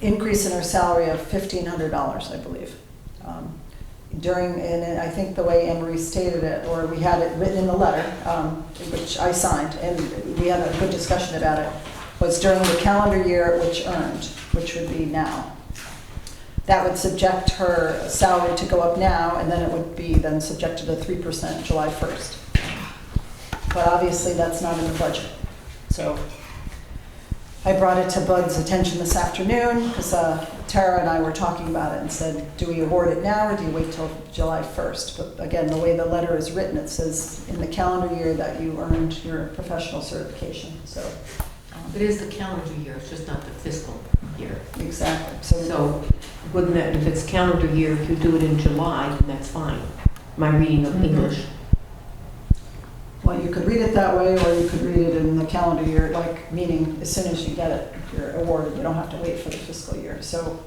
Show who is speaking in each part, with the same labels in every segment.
Speaker 1: increase in her salary of fifteen hundred dollars, I believe. Um, During, and I think the way Anne Marie stated it, or we had it written in the letter, um, which I signed, and we had a good discussion about it, was during the calendar year which earned, which would be now. That would subject her salary to go up now, and then it would be then subjected to three percent July first. But obviously, that's not in the budget, so I brought it to Bud's attention this afternoon because Tara and I were talking about it and said, do we award it now or do you wait till July 1st? But again, the way the letter is written, it says in the calendar year that you earned your professional certification, so. um,
Speaker 2: It is the calendar year, it's just not the fiscal year.
Speaker 1: Exactly, so,
Speaker 2: So wouldn't that, if it's calendar year, if you do it in July, then that's fine. My reading of
Speaker 1: Mhm.
Speaker 2: English.
Speaker 1: well, you could read it that way or you could read it in the calendar year, like, meaning as soon as you get it, you're awarded, you don't have to wait for the fiscal year, so.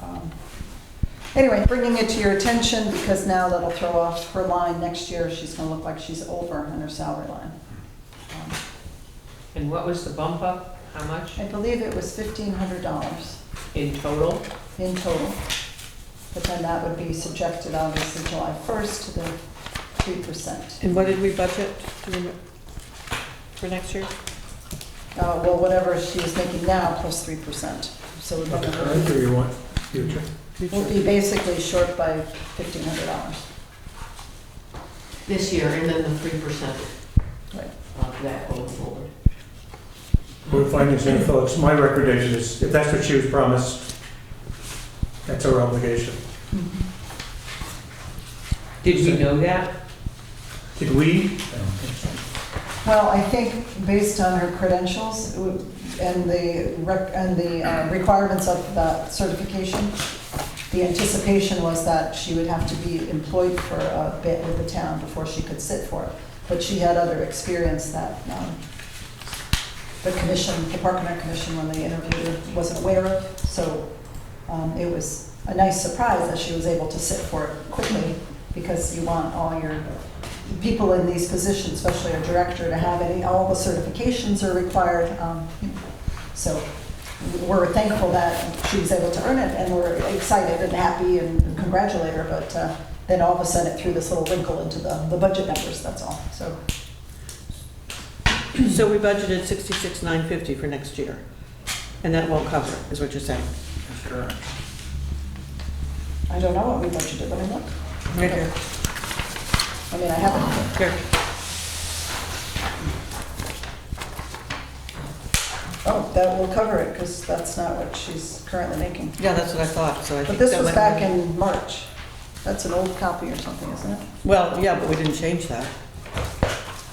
Speaker 1: um, Anyway, bringing it to your attention because now that'll throw off her line next year, she's gonna look like she's over in her salary line. Um,
Speaker 3: And what was the bump up? How much
Speaker 1: I believe it was fifteen hundred dollars
Speaker 3: in total?
Speaker 1: in total. But then that would be subjected obviously July first to the three percent.
Speaker 4: And what did we budget do you rem- for next year?
Speaker 1: Uh, well, whatever she is making now plus three percent. So
Speaker 5: Not the
Speaker 1: we'll
Speaker 5: current, or you want future?
Speaker 1: we'll be basically short by fifteen hundred dollars.
Speaker 2: This year, and then the three percent
Speaker 1: Right.
Speaker 2: of that going forward.
Speaker 5: Board findings and folks, my recommendation is, if that's what she was promised, that's our obligation.
Speaker 3: Did we know that?
Speaker 5: Did we,
Speaker 1: Well, I think based on her credentials and the, rec- and the uh, requirements of the certification, the anticipation was that she would have to be employed for a bit with the town before she could sit for it. But she had other experience that um, the commission, the Park and Rec Commission, when they interviewed her, wasn't aware of. So um, it was a nice surprise that she was able to sit for it quickly because you want all your people in these positions, especially a director, to have any, all the certifications are required. um, So we're thankful that she was able to earn it, and we're excited and happy and congratulate her, but uh, then all of a sudden it threw this little wrinkle into the, the budget numbers, that's all, so.
Speaker 4: So we budgeted sixty-six, nine fifty for next year, and that won't cover, it, is what you're saying?
Speaker 1: I don't know what we budgeted, let me look.
Speaker 4: Right here,
Speaker 1: I mean, I haven't,
Speaker 4: here.
Speaker 1: oh, that will cover it, because that's not what she's currently making.
Speaker 4: Yeah, that's what I thought, so I
Speaker 1: But
Speaker 4: think
Speaker 1: this
Speaker 4: that
Speaker 1: was
Speaker 4: went-
Speaker 1: back in March. That's an old copy or something, isn't it?
Speaker 4: Well, yeah, but we didn't change that.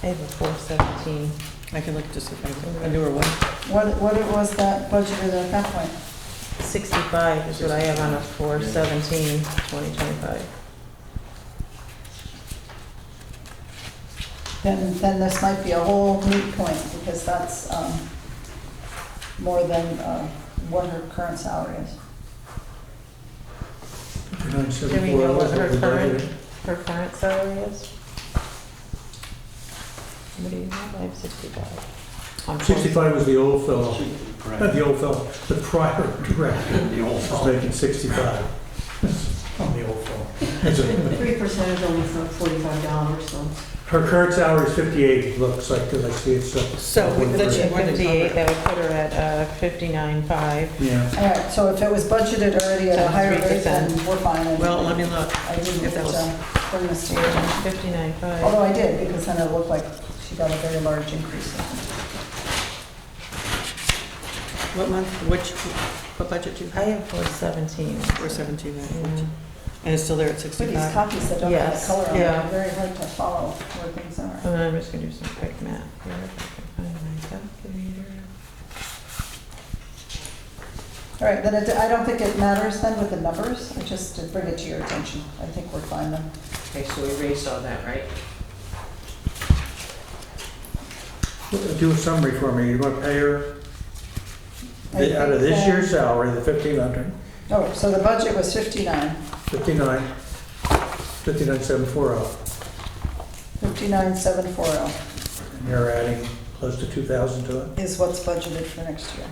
Speaker 6: I have a four seventeen.
Speaker 4: I can look to see if I, a newer one.
Speaker 1: What, what it was that budgeted at that point?
Speaker 6: Sixty-five is what I have on a four seventeen, twenty twenty-five.
Speaker 1: then, then this might be a whole moot point, because that's um, more than uh, what her current salary is.
Speaker 5: nine
Speaker 6: Do
Speaker 5: seven
Speaker 6: we
Speaker 5: four,
Speaker 6: know what
Speaker 5: what
Speaker 6: her
Speaker 5: we
Speaker 6: current,
Speaker 5: budgeted?
Speaker 6: her current salary is? What do you have? I have sixty-five.
Speaker 2: on both.
Speaker 5: Sixty-five was the old fellow, not the old fellow, the prior director
Speaker 7: The old
Speaker 5: was making sixty-five. That's On the old fellow. That's it.
Speaker 2: Three percent is only for forty-five dollars, so.
Speaker 5: Her current salary is fifty-eight, looks like, because I see it's up.
Speaker 4: So we- that's your-
Speaker 6: Fifty-eight, that would put her at, uh, fifty-nine five.
Speaker 5: Yeah.
Speaker 1: All right, so if it was budgeted already at a higher rate, then we're fine. and
Speaker 4: Well, let me look.
Speaker 1: I didn't
Speaker 4: if that was-
Speaker 1: uh, bring this to your attention.
Speaker 6: Fifty-nine five.
Speaker 1: although I did, because then it looked like she got a very large increase.
Speaker 4: What month, which, what budget do you
Speaker 6: I
Speaker 4: have?
Speaker 6: have four seventeen.
Speaker 4: Four seventeen, nine
Speaker 6: Yeah.
Speaker 4: fifty. And it's still there at
Speaker 1: With these
Speaker 4: sixty-five?
Speaker 1: copies that don't have
Speaker 6: Yes,
Speaker 1: the color on them,
Speaker 6: yeah.
Speaker 1: they're Uh, very hard to follow where things are.
Speaker 6: And I'm just gonna do some quick math here if I can find my calculator.
Speaker 1: All right, then it, I don't think it matters then with the numbers, I just to bring it to your attention. I think we're fine then.
Speaker 3: Okay, so we raised all that, right?
Speaker 5: Do a summary for me. You're going to pay her the-
Speaker 1: I
Speaker 5: out of
Speaker 1: think,
Speaker 5: this
Speaker 1: uh,
Speaker 5: year's salary, the 1,500,
Speaker 1: Oh, so the budget was 59,
Speaker 5: 59, 59,740.
Speaker 1: 59,740
Speaker 5: And you're adding close to 2,000 to it.
Speaker 1: is what's budgeted for next year.